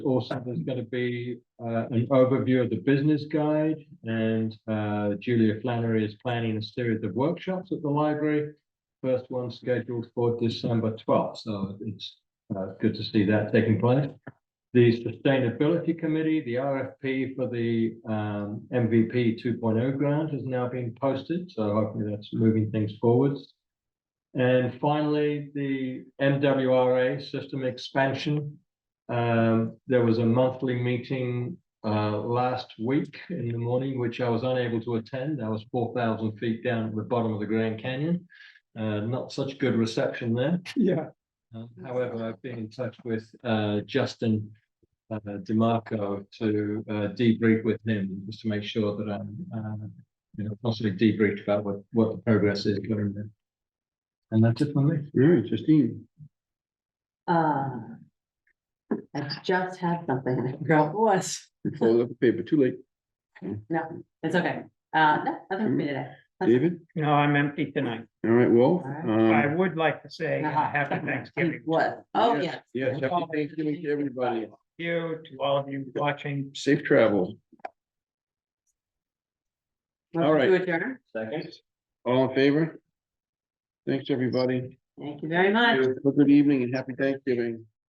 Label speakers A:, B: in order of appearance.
A: Also, there's going to be uh, an overview of the business guide and uh, Julia Flannery is planning a series of workshops at the library. First one scheduled for December twelfth, so it's uh, good to see that taking place. The Sustainability Committee, the RFP for the um, MVP 2.0 grant has now been posted, so hopefully that's moving things forwards. And finally, the MWRA system expansion. Um, there was a monthly meeting, uh, last week in the morning, which I was unable to attend. I was four thousand feet down at the bottom of the Grand Canyon. Uh, not such good reception there.
B: Yeah,
A: Um, However, I've been in touch with uh, Justin uh, DeMarco to uh, debrief with him, just to make sure that I'm, uh, you know, possibly debriefed about what, what the progress is. going on. And that's it for me.
B: very interesting.
C: Uh. I just had something and I forgot what it was.
B: Fold up the paper, too late.
C: No, it's okay. Uh, no, nothing for me today.
B: David,
D: No, I'm empty tonight.
B: all right, Wolf.
C: All right.
D: I
B: um,
D: would like to say uh,
C: Uh-huh.
D: happy Thanksgiving.
C: What? Oh, yes.
B: Yes, happy Thanksgiving to everybody.
D: to You, to all of you watching.
B: Safe travel. All right.
C: Motion to adjourn.
A: Second.
B: All in favor? Thanks, everybody.
C: Thank you very much.
B: Have a good evening and happy Thanksgiving.